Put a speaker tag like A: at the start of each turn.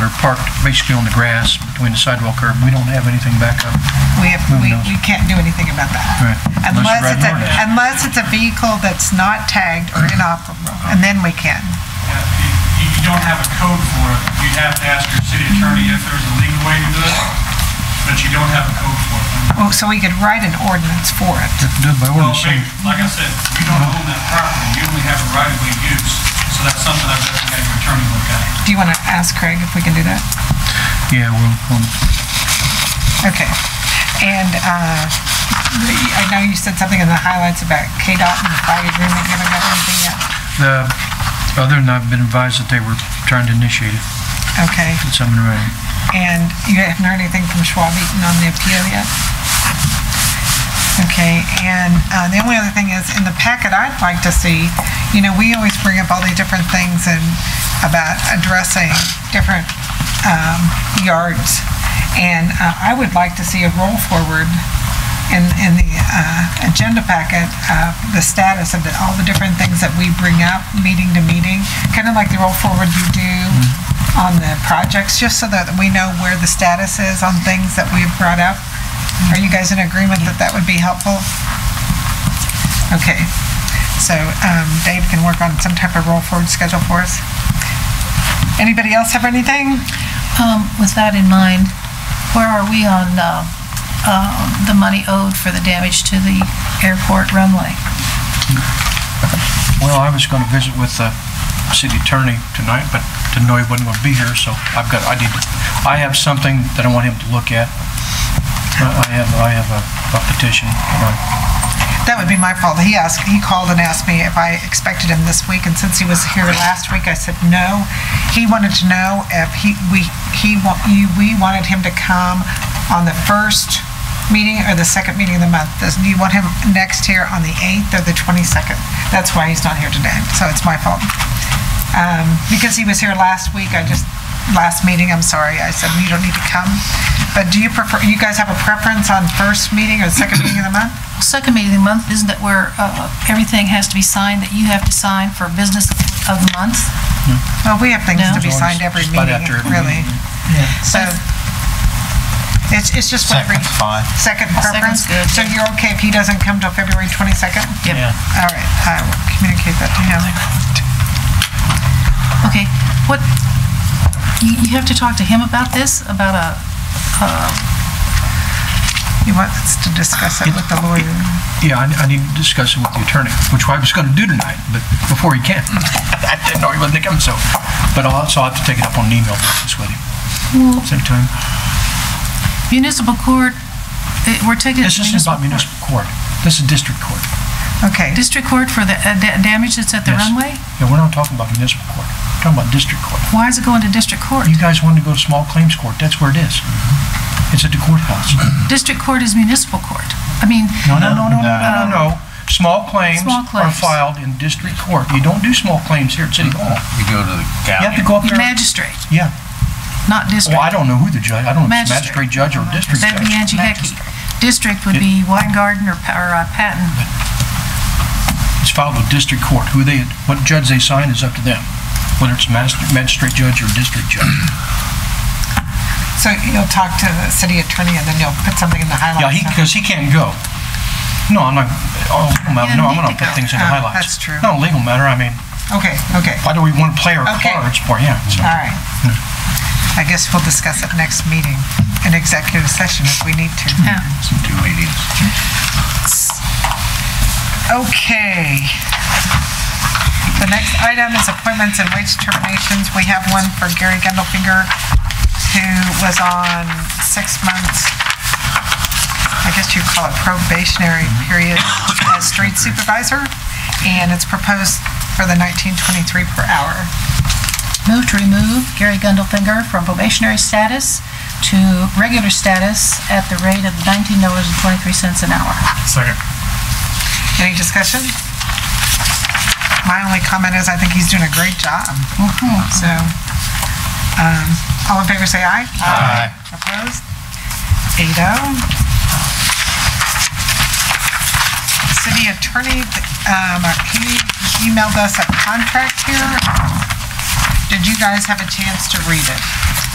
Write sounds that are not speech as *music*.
A: they're parked basically on the grass between the sidewalk curb. We don't have anything back up.
B: We have,
A: Who
B: we,
A: knows?
B: we can't do anything about that.
A: Right. Unless you
B: Unless
A: ride
B: it's a,
A: an ordinance.
B: unless it's a vehicle that's not tagged or inoperable,
A: Uh-huh.
B: and then we can.
C: Yeah, You you don't have a code for it. You'd have to ask your city attorney if there's a legal way to do it, but you don't have a code for it.
B: Well, so we could write an ordinance for it.
A: Have to do it by
C: Well,
A: ordinance.
C: ba- like I said, you don't own that property. You only have a right-of-way use, so that's something I've got to have your attorney look at.
B: Do you want to ask Craig if we can do that?
A: Yeah, we'll, um, we'll
B: Okay. And, uh, the- I know you said something in the highlights about KDOT and the fire agreement, you haven't got anything yet?
A: The, other than I've been advised that they were trying to initiate it,
B: Okay.
A: it's something around.
B: And you haven't heard anything from Schwab Eaton on the appeal yet? Okay, and uh, the only other thing is, in the packet I'd like to see, you know, we always bring up all these different things and about addressing different um, yards. And uh, I would like to see a roll forward in, in the uh, agenda packet, uh, the status of the- all the different things that we bring up, meeting to meeting, kind of like the roll forward you do on the projects, just so that we know where the status is on things that we've brought up. Are you guys in agreement that that would be helpful? Okay, so um, Dave can work on some type of roll forward schedule for us. Anybody else have anything?
D: Um, with that in mind, where are we on, uh, uh, the money owed for the damage to the airport runway?
A: Well, I was gonna visit with the city attorney tonight, but didn't know he wasn't gonna be here, so I've got, I need, I have something that I want him to look at. I I have, I have a a petition. uh,
B: That would be my fault. He asked, he called and asked me if I expected him this week, and since he was here last week, I said no. He wanted to know if he, we, he, wa- you- we wanted him to come on the first meeting or the second meeting of the month. Does- Do you want him next here on the 8th or the 22nd? That's why he's not here today, so it's my fault. Um, Because he was here last week, I just, last meeting, I'm sorry, I said, you don't need to come. But do you prefer, you guys have a preference on first meeting or second meeting of the month?
D: Second meeting of the month, isn't it where, uh, everything has to be signed, that you have to sign for business of the month?
B: Well, we have things to
D: No.
B: be signed every
A: Just right
B: meeting,
A: after every
B: really. So, it's, it's just what.
E: Second's fine.
B: Second preference?
D: Second's good.
B: So you're okay if he doesn't come till February 22nd?
D: Yep. Yeah.
B: All right, I will communicate that to him.
D: Okay, what, you, you have to talk to him about this, about a,
B: He wants to discuss it with the lawyer.
A: Yeah, I I need to discuss it with the attorney, which I was gonna do tonight, but before he can. *laughs* I didn't know he wasn't gonna come, so, but I'll, so I'll have to take it up on an email basis with him. Send it to him.
D: municipal court, eh, we're taking.
A: This isn't about municipal court. This is district court.
B: Okay,
D: District court for the uh, da- damage that's at the
A: Yes.
D: runway?
A: Yeah, we're not talking about municipal court. We're talking about district court.
D: Why is it going to district court?
A: You guys wanted to go to small claims court. That's where it is. It's at the courthouse.
D: District court is municipal court. I mean,
A: No, no, no, no, no, no, no. Small claims
D: Small
A: are
D: claims.
A: filed in district court. You don't do small claims here at City Hall.
E: You go to the
A: You have
E: county.
A: to go up there.
D: magistrate,
A: Yeah.
D: not district.
A: Well, I don't know who the judge, I don't know if it's magistrate
D: Magistrate.
A: judge or district
D: That'd be
A: judge.
D: Angie Hecky. District would be Weingarten or Pa- or, uh, Patton.
A: It's filed with district court. Who they, what judge they sign is up to them, whether it's master- magistrate judge or district judge.
B: so you'll talk to the city attorney and then you'll put something in the highlights?
A: Yeah, he,
B: huh?
A: because he can't go. No, I'm not, oh, legal matter, no, I'm
D: You
A: gonna
D: need to
A: put
D: go.
A: things in the
B: Oh,
A: highlights.
B: that's true.
A: No, legal matter, I mean,
B: Okay, okay,
A: why do we want to play our
B: Okay.
A: cards for, yeah. so.
B: all right. I guess we'll discuss it next meeting, in executive session if we need to.
D: Yeah.
E: Two meetings.
B: Okay. The next item is appointments and wage terminations. We have one for Gary Gendelfinger, who was on six months, I guess you call it probationary period as street supervisor, and it's proposed for the 1923 per hour.
D: Move to remove Gary Gundelfinger from probationary status to regular status at the rate of $19.23 an hour.
C: Second.
B: Any discussion? My only comment is I think he's doing a great job.
D: Mm-hmm.
B: So, um, all in favor, say aye. Aye. Opposed? Eight oh. City attorney, um, he emailed us a contract here. Did you guys have a chance to read it?